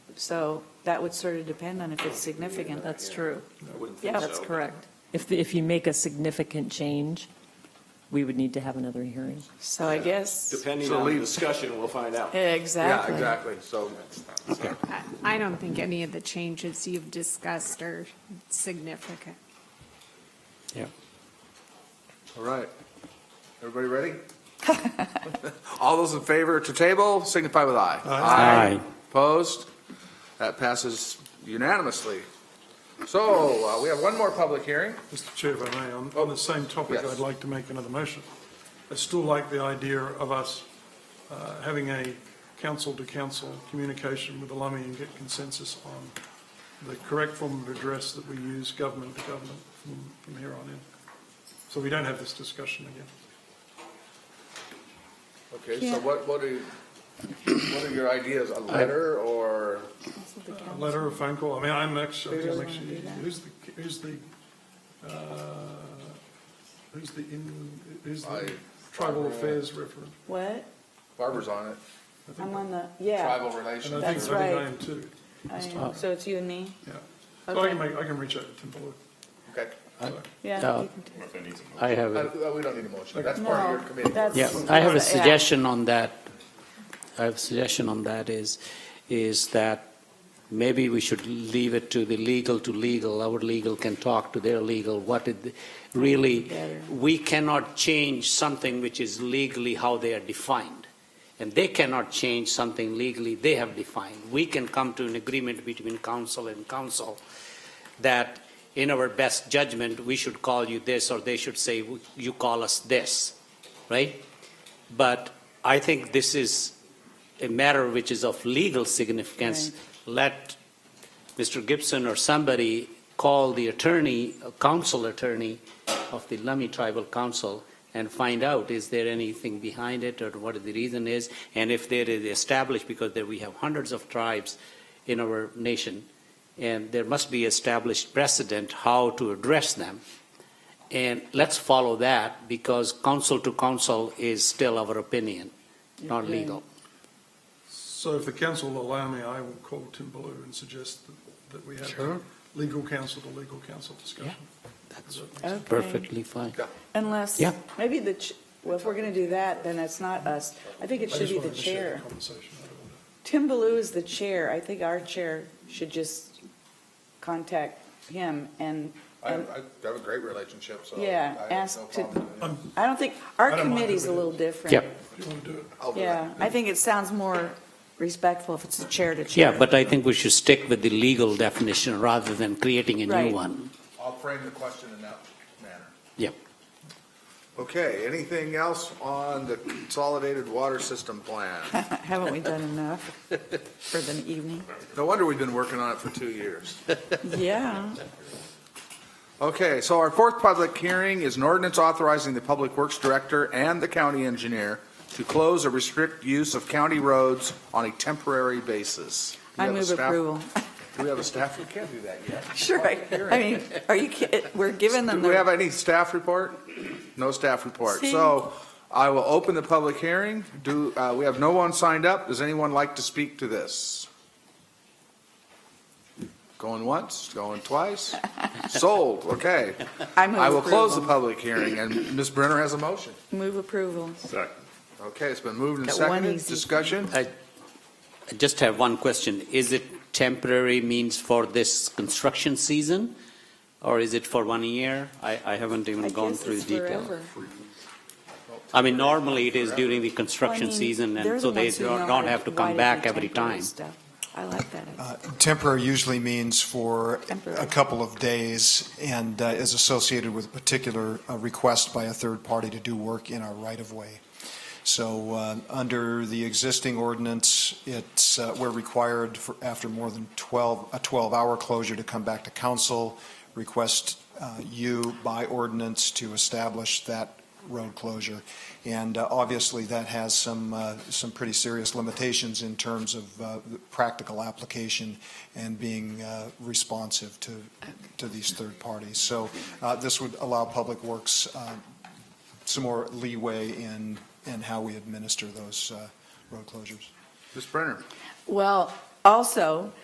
So that would sort of depend on if it's significant. That's true. I wouldn't think Yeah, so. That's correct. If, the- if you make a significant change, we would need to have another hearing. So I guess, Depending So on the leave- discussion, we'll find out. exactly. Yeah, exactly, so, I- I don't think any of the changes you've discussed are significant. all right. Everybody ready? All those in favor to table signify with aye. Aye. Opposed? That passes unanimously. So, uh, we have one more public hearing. Mr. Chair, if I may, on, on the same topic, Yes. I'd like to make another motion. I still like the idea of us uh, having a council-to-council communication with the Lummi and get consensus on the correct form of address that we use government to government from- from here on in. So we don't have this discussion again. Okay, so what, what are, you- what are your ideas, a letter or? A letter, a phone call, I mean, I'm actually, I think I'm really wanna actually, do that? who's the, who's the, uh, who's the, in- who's the I- tribal affairs referent? What? Barbara's on it, I'm on the, yeah. tribal relations. And I think, That's I think I right. am too, I am. So it's you and me? yeah. But I Okay. can make, I can reach out to Tim Fuller. Okay, Yeah. Uh, you can do it. I have, a- Uh, we don't need a motion, that's part of your No, committee. that's- yeah, I have a Yeah. suggestion on that. I have a suggestion on that is, is that maybe we should leave it to the legal to legal. Our legal can talk to their legal, what did, they- really, Better. we cannot change something which is legally how they are defined. And they cannot change something legally they have defined. We can come to an agreement between council and council that in our best judgment, we should call you this, or they should say, you call us this, right? But I think this is a matter which is of legal significance. Let Mr. Gibson or somebody call the attorney, uh, council attorney of the Lummi Tribal Council and find out, is there anything behind it or what the reason is? And if there is established, because there we have hundreds of tribes in our nation, and there must be established precedent how to address them. And let's follow that because council to council is still our opinion, not Yeah. legal. So if the council will allow me, I will call Tim Ballou and suggest that- that we have a Sure. legal council to legal council discussion. That's Okay. perfectly fine. Unless, Yeah. maybe the, ch- well, if we're going to do that, then it's not us. I think it I should just be the wanted to share chair. conversation. I don't want to- Tim Ballou is the chair. I think our chair should just contact him and, I, I have a great relationship, so. Yeah, I have no ask to- problem. I don't think, our I don't mind committee's a doing it. little different. Yeah, If you want to do it. I'll do that. Yeah, I think it sounds more respectful if it's the chair to chair. yeah, but I think we should stick with the legal definition rather than creating a Right. new one. I'll frame the question in that manner. Yep. Okay, anything else on the consolidated water system plan? Haven't we done enough for the evening? No wonder we've been working on it for two years. Yeah. Okay, so our fourth public hearing is an ordinance authorizing the Public Works Director and the county engineer to close or restrict use of county roads on a temporary basis. Do I we have a move staff- approval. Do we have a staff? We can't do that yet. Sure, I, I mean, are you, kid- we're giving them Do we have the, any staff report? No staff report. See? So I will open the public hearing. Do, uh, we have no one signed up. Does anyone like to speak to this? Going once, going twice? Sold, okay. I move I will close the approval. public hearing, and Ms. Brenner has a motion. Move approval. Okay, it's been moved and Got one seconded. easy thing. Discussion? I just have one question. Is it temporary means for this construction season? Or is it for one year? I, I haven't I even gone guess through the it's detail. forever. I mean, normally it is during the Well, I construction mean, season they're and so the they ones who know don't how don't have to why come do back the every temporary time. stuff. I like that. Uh, Temporary usually means for Temporary. a couple of days and uh, is associated with a particular uh, request by a third party to do work in our right-of-way. So uh, under the existing ordinance, it's, uh, we're required for, after more than 12, a 12-hour closure to come back to council, request uh, you by ordinance to establish that road closure. And uh, obviously, that has some, uh, some pretty serious limitations in terms of uh, the practical application and being uh, responsive to, to these third parties. So uh, this would allow Public Works uh, some more leeway in, in how we administer those uh, road closures. Ms. Brenner? Well, also,